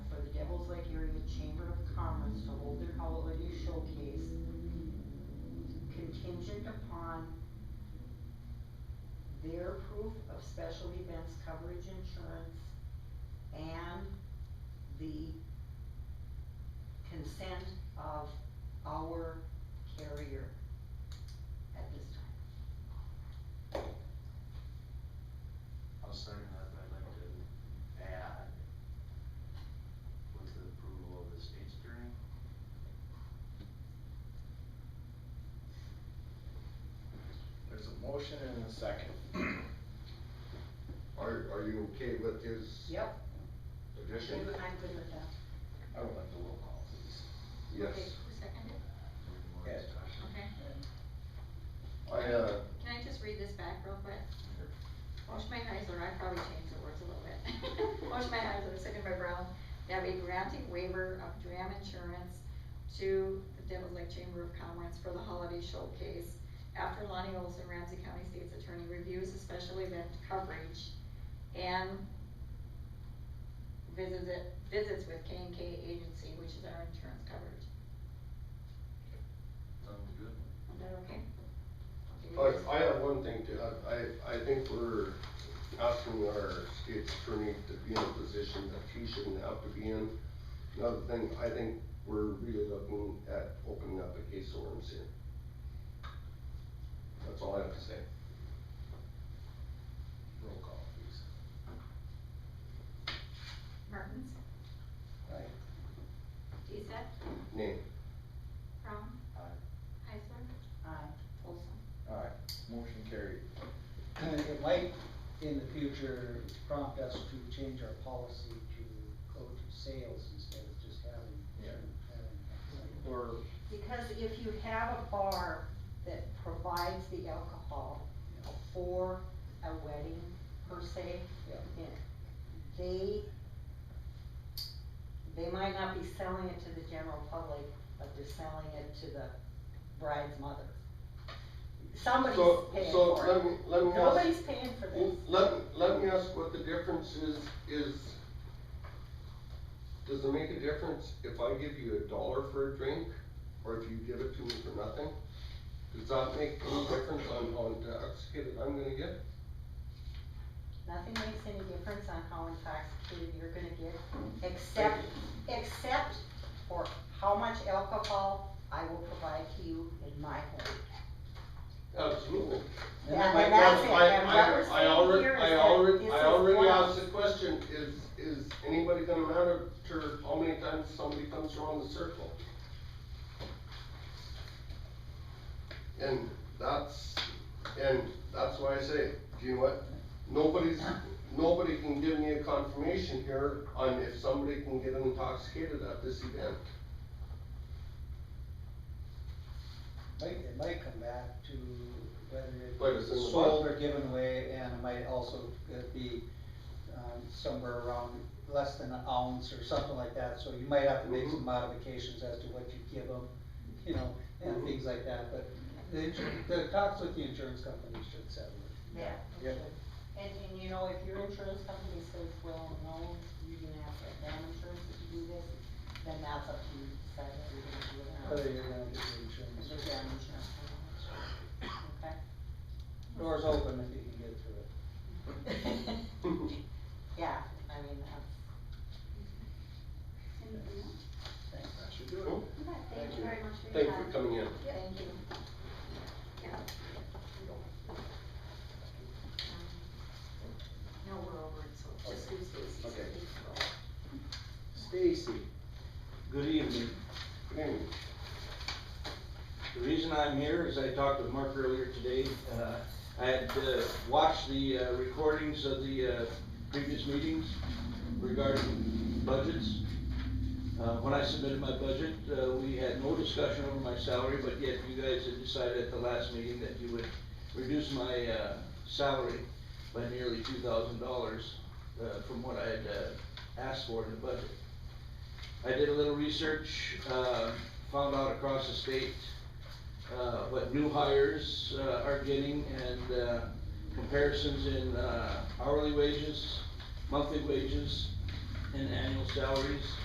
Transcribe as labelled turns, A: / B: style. A: of special events coverage insurance and the consent of our carrier at this time.
B: I'll second that, but I'd like to add with the approval of the state's attorney.
C: There's a motion and a second.
D: Are, are you okay with his?
A: Yep.
D: Addition?
A: I'm good with that.
C: I would like the roll call, please.
D: Yes.
E: Okay, who seconded?
B: Any more
C: Yeah.
B: discussion?
E: Okay.
D: I, uh,
E: Can I just read this back real quick? Motion by Heisler, I probably changed the words a little bit. Motion by Heisler, second by Brown, that we granting waiver of dram insurance to the Devils Lake Chamber of Commerce for the holiday showcase after Lonnie Olson, Ramsey County State's Attorney, reviews the special event coverage and visits it, visits with K and K Agency, which is our insurance coverage.
B: Sounds good.
E: Is that okay?
D: I, I have one thing to, add. I, I think we're asking our state's attorney to be in a position that he shouldn't have to be in. Another thing, I think we're really looking at opening up a case of worms here. That's all I have to say.
C: Roll call, please.
E: Martins,
C: Aye.
E: Deesek,
D: Name?
E: Brown,
B: Aye.
E: Heisler,
A: Aye.
E: Olson.
C: Alright, motion carried.
F: It might, in the future, prompt us to change our policy to go to sales instead of just having.
C: Yeah.
F: having-
C: Or,
A: Because if you have a bar that provides the alcohol for a wedding per se,
F: Yeah.
A: then they, they might not be selling it to the general public, but they're selling it to the bride's mother. Somebody's
D: So-
A: paying
D: so
A: for
D: let me-
A: it.
D: let me ask-
A: Nobody's paying for
D: Well,
A: this.
D: Let, let me ask what the difference is, is, does it make a difference if I give you a dollar for a drink, or if you give it to me for nothing? Does that make any difference on, on intoxicated I'm gonna get?
A: Nothing makes any difference on how intoxicated you're gonna get, except, except for how much alcohol I will provide to you in my home.
D: Absolutely.
A: Yeah,
D: I-
A: and that's it,
D: I-
A: and
D: I-
A: what we're
D: I
A: saying
D: already-
A: here is
D: I
A: that
D: already,
A: this
D: I
A: is
D: already
A: one of-
D: asked the question, is, is anybody gonna matter to how many times somebody comes around the circle? And that's, and that's why I say, do you know what, nobody's, nobody can give me a confirmation here on if somebody can get intoxicated at this event.
F: Might, it might come back to
D: Wait,
F: whether
D: it's
F: it's
D: in the
F: sold
D: book.
F: or given away, and it might also uh, be, um, somewhere around less than an ounce or something like that, so you might have to make
D: Mhm.
F: some modifications as to what you give them, you know, and
D: Mhm.
F: things like that, but the, insur- the talks with the insurance company should settle it.
A: Yeah.
C: Yeah.
A: And, and you know, if your insurance company says, well, no, you can ask that damn insurance to do this, then that's up to you to decide whether you're gonna do it or
F: Whether
A: not.
F: you're gonna do the
A: The
F: insurance.
A: damn insurance company, okay?
F: Doors open if you can get through it.
A: Yeah, I mean, that's.
E: Anything else?
C: that should do
D: Cool.
C: it.
E: Okay, Thank you very much for
D: Thank
E: your
D: you
E: time.
D: for coming in.
E: Thank you. Yeah. Um, No, we're over, it, so just
C: Okay.
E: use this.
C: Okay. Stacy.
G: Good evening.
D: Good evening.
G: The reason I'm here is I talked with Mark earlier today. Uh, I had uh, watched the uh, recordings of the uh, previous meetings regarding budgets. Uh, When I submitted my budget, uh, we had no discussion over my salary, but yet you guys had decided at the last meeting that you would reduce my uh, salary by nearly two thousand dollars from what I had uh, asked for in the budget. I did a little research, uh, found out across the state, uh, what new hires, uh, are getting and, uh, comparisons in, uh, hourly wages, monthly wages, and annual salaries.